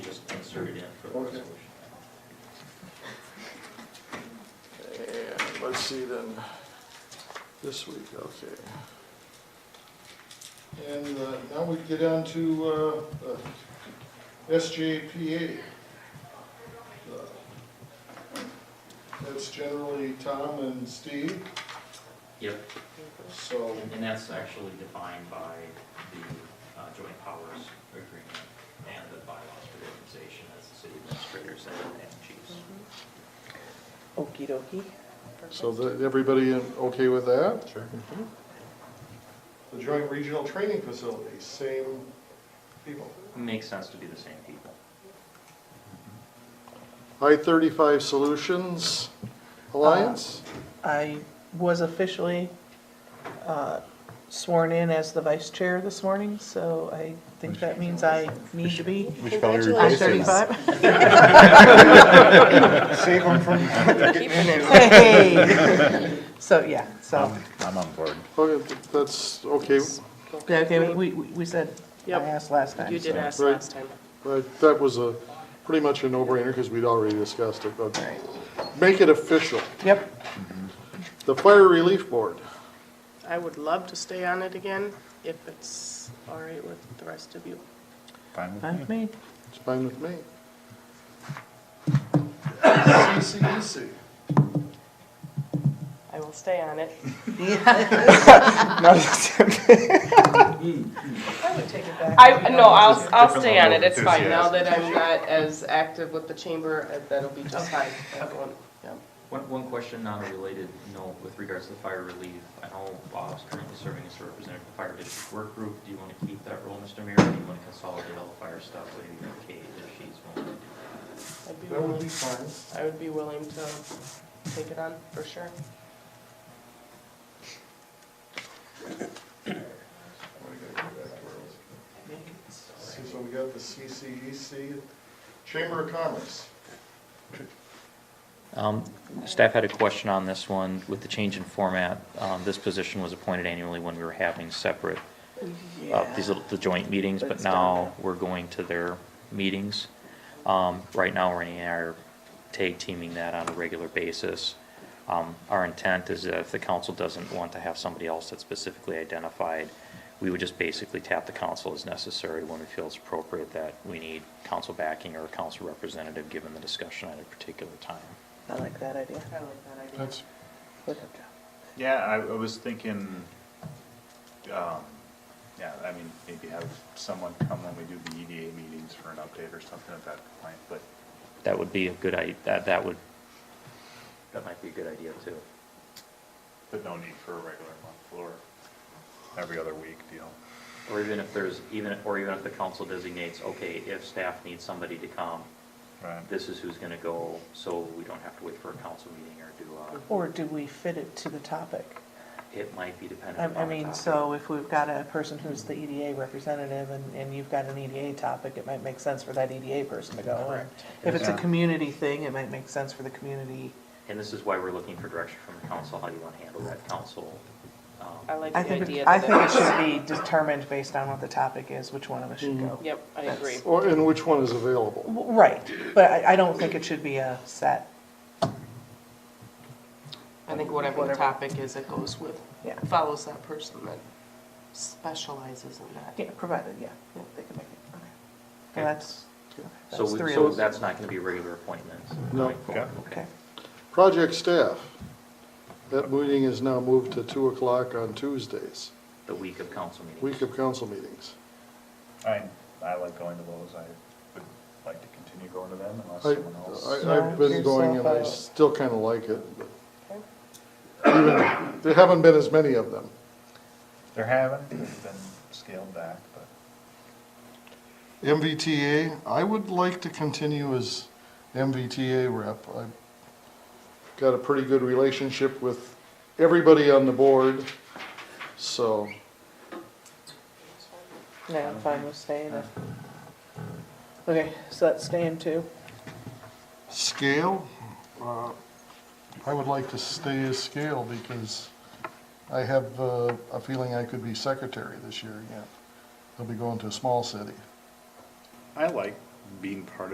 insert it in for the Okay. resolution. And let's see then, this week, okay. And uh, now we get on to uh, uh, SJPA. Uh, That's generally Tom and Steve, Yep, so, and that's actually defined by the uh, joint powers agreement and the bylaws for the organization as the city administrators and and chiefs. Okey dokey. so the- everybody in- okay with that? Sure. Mm-hmm. The Joint Regional Training Facility, same people. Makes sense to be the same people. I-35 Solutions Alliance, Uh, I was officially uh, sworn in as the vice chair this morning, so I think that means I need to be. We should probably I'm replace it. 35. save them from, Hey! So, yeah, so, Um, I'm I'm on board. okay, that's okay. yeah, okay, we, we we said, I Yep. asked last time. You did so- ask Right. last time. But That was a, pretty much a no-brainer because we'd already discussed it, but make it official. Yep, The Fire Relief Board, I would love to stay on it again if it's all right with the rest of you. Fine with fine me. with me. it's fine with me. CCEC, I will stay on it. I would take it back. I, no, I'll, I'll stay on it, level of it's fine. Now that I'm not as active with the chamber, uh, that'll be just fine. I won't- yeah. One, one question, not a related note with regards to the fire relief. I know Bob's currently serving as a representative of the fire district work group. Do you want to keep that role, Mr. Mayor, or do you want to consolidate all the fire stuff with Kate if she's willing to do I'd be that would be willing, fine. I would be willing to take it on, for sure. So we got the CCEC, Chamber of Commerce. Um, Staff had a question on this one. With the change in format, um, this position was appointed annually when we were having separate, uh, these little, the joint meetings, but That's done. now we're going to their meetings. Um, Right now, Renee and I are tag teaming that on a regular basis. Um, Our intent is that if the council doesn't want to have somebody else that's specifically identified, we would just basically tap the council as necessary when we feel it's appropriate that we need council backing or a council representative, given the discussion at a particular time. I like that idea. I like that idea. That's, Good. Yeah, I, I was thinking, um, yeah, I mean, maybe have someone come when we do the EDA meetings for an update or something at that point, but That would be a good i, that, that would. That might be a good idea too. but no need for a regular month or every other week deal. Or even if there's, even, or even if the council designates, okay, if staff needs somebody to come, Right. this is who's gonna go, so we don't have to wait for a council meeting or do Or do we fit it to the topic? a, it might be I, dependent I upon the mean, topic. so if we've got a person who's the EDA representative and, and you've got an EDA topic, it might make sense for that EDA person to go. And If it's a Yeah. community thing, it might make sense for the community. And this is why we're looking for direction from the council, how you wanna handle that council. um, I like I the think, idea. it- I that think it should be determined based on what the topic is, which one of us should go. Yep, I agree. or, and which one is available? W- Right, but I, I don't think it should be a set, I think whatever the topic is, it goes with, yeah. follows that person that specializes in that. Yeah, provided, yeah, yeah, they can make it, okay. Okay. And that's, So, that's we- three so of us. that's not gonna be regular appointments? No. going forward, Okay, Project Staff, that meeting is now moved to 2 o'clock on Tuesdays, The week of council meetings. week of council meetings. I, I like going to those, I would like to continue going to them unless I, someone else. I- I've been Knock going and I yourself out. still kind of like it. but even- There haven't been as many of them. They're having, they've been scaled back, but. MVTA, I would like to continue as MVTA rep. I've got a pretty good relationship with everybody on the board, so yeah, I'm fine with staying there. Okay, so that's staying too. scale, uh, I would like to stay as scale because I have uh, a feeling I could be secretary this year again. I'll be going to a small city. I like being part of.